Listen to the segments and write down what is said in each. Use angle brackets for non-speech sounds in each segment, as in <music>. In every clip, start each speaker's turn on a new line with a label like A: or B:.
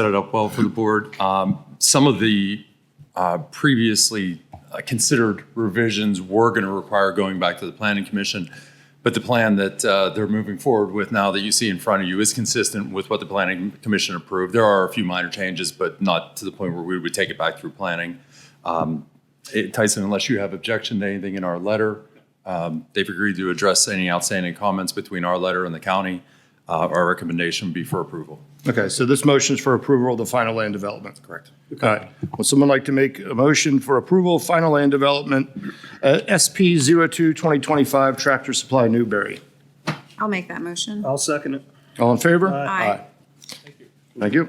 A: set it up well for the board. Um, Some of the uh, previously uh, considered revisions were going to require going back to the planning commission, but the plan that uh, they're moving forward with now that you see in front of you is consistent with what the planning commission approved. There are a few minor changes, but not to the point where we would take it back through planning. Um, it- Tyson, unless you have objection to anything in our letter, um, they've agreed to address any outstanding comments between our letter and the county. Uh, Our recommendation would be for approval.
B: Okay, so this motion is for approval of the final land development. Correct. All right. Would someone like to make a motion for approval of final land development, uh, SP 02 2025 Tractor Supply Newberry?
C: I'll make that motion.
D: I'll second it.
B: All in favor?
C: Uh, Aye.
B: Thank you.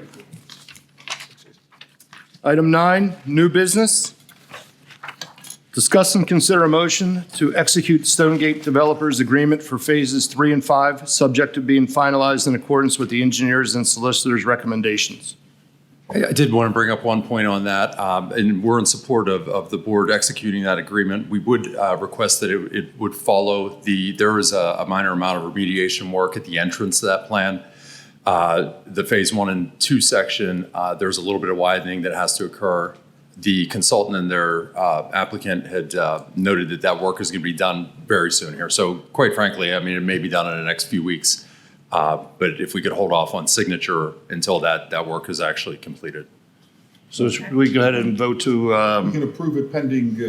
B: Item nine, new business. Discuss and consider a motion to execute Stonegate Developers Agreement for Phases 3 and 5, subject to being finalized in accordance with the engineers and solicitors' recommendations.
A: I I did want to bring up one point on that, um, and we're in support of, of the board executing that agreement. We would uh, request that it, it would follow the, there is a a minor amount of remediation work at the entrance to that plan. Uh, The phase one and two section, uh, there's a little bit of widening that has to occur. The consultant and their uh, applicant had uh, noted that that work is going to be done very soon here. So quite frankly, I mean, it may be done in the next few weeks. Uh, But if we could hold off on signature until that, that work is actually completed.
B: So should we go ahead and vote to, um,
E: You can approve it pending, uh,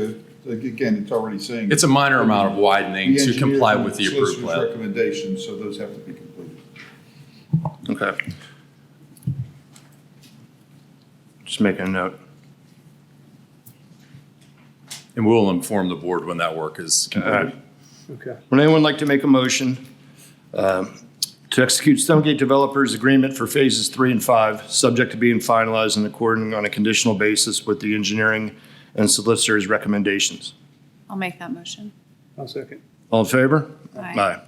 E: like, again, it's already saying.
A: It's a minor amount of widening
E: The
A: to
E: engineer
A: comply
E: and
A: with the approved
E: solicitor's
A: plan.
E: Recommendations, so those have to be completed.
B: okay. Just making a note.
A: And we'll inform the board when that work is completed.
D: Okay.
B: Would anyone like to make a motion um, to execute Stonegate Developers Agreement for Phases 3 and 5, subject to being finalized and according on a conditional basis with the engineering and solicitor's recommendations?
C: I'll make that motion.
D: I'll second.
B: All in favor?
C: Aye.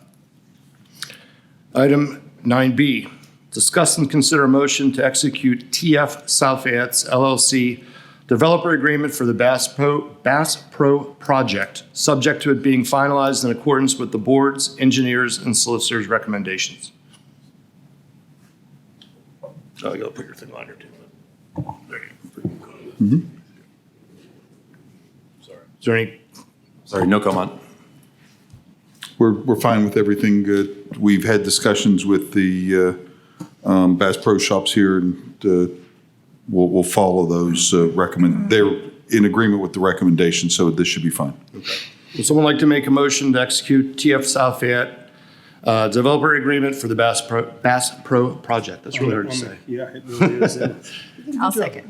B: Item 9B, discuss and consider a motion to execute TF South Fayette's LLC Developer Agreement for the Bass Pro, Bass Pro Project, subject to it being finalized in accordance with the board's, engineers, and solicitor's recommendations. Oh, you'll put your thing on here too. There you go. Mm-hmm. Is there any
A: Sorry, no comment.
E: We're, we're fine with everything. uh, We've had discussions with the uh, um, Bass Pro Shops here, and uh, we'll, we'll follow those uh, recommend, they're in agreement with the recommendation, so this should be fine.
B: Would someone like to make a motion to execute TF South Fayette uh, developer agreement for the Bass Pro, Bass Pro project? That's really hard to say.
D: Yeah, it really is.
B: <laughs>
C: I'll second.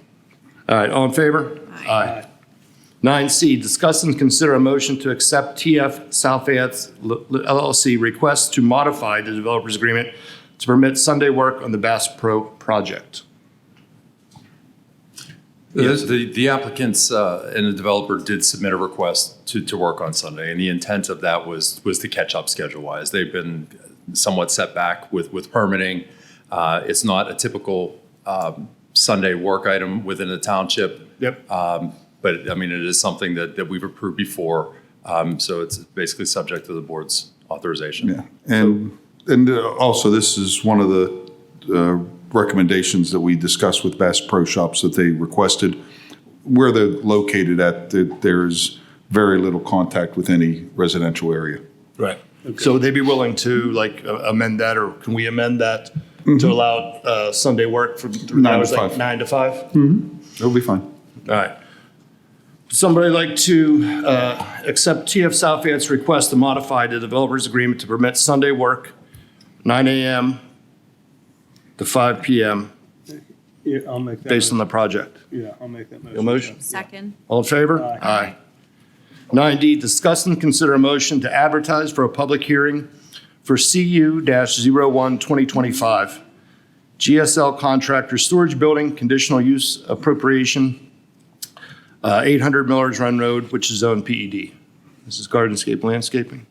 B: All right, all in favor? Aye. Nine C, discuss and consider a motion to accept TF South Fayette's L- L- LLC request to modify the developer's agreement to permit Sunday work on the Bass Pro project.
A: Yes, the, the applicants uh, and the developer did submit a request to, to work on Sunday, and the intent of that was, was to catch up schedule-wise. They've been somewhat set back with, with permitting. Uh, It's not a typical um, Sunday work item within the township.
B: Yep.
A: But, I mean, it is something that, that we've approved before, um, so it's basically subject to the board's authorization.
E: Yeah, and, and uh, also, this is one of the uh, recommendations that we discussed with Bass Pro Shops that they requested. Where they're located at, that there's very little contact with any residential area.
B: Right. So would they be willing to like uh, amend that, or can we amend that to allow uh, Sunday work from, through
E: Mm-hmm. Nine to
B: hours like
E: five.
B: nine to five?
E: It'll be fine.
B: All right. Somebody like to uh, accept TF South Fayette's request to modify the developer's agreement to permit Sunday work, 9 AM to 5 PM,
D: Yeah, I'll make that.
B: based on the project.
D: Yeah, I'll make that motion.
B: Your motion?
C: Second.
B: All in favor? Aye. 9D, discuss and consider a motion to advertise for a public hearing for CU-01 2025, GSL Contractor Storage Building Conditional Use Appropriation, uh, 800 Millers Run Road, which is zoned PED. This is Gardenscape Landscaping,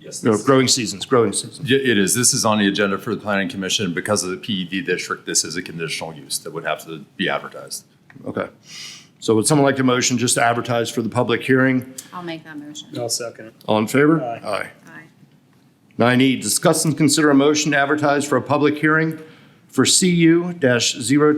A: Yes.
B: no, Growing Seasons, Growing Seasons.
A: Y- It is. This is on the agenda for the planning commission. Because of the PED district, this is a conditional use that would have to be advertised.
B: Okay. So would someone like to motion just to advertise for the public hearing?
C: I'll make that motion.
D: I'll second it.
B: All in favor?
D: Aye.
B: Aye.
C: Aye.
B: Nine E, discuss and consider a motion to advertise for a public hearing for CU-02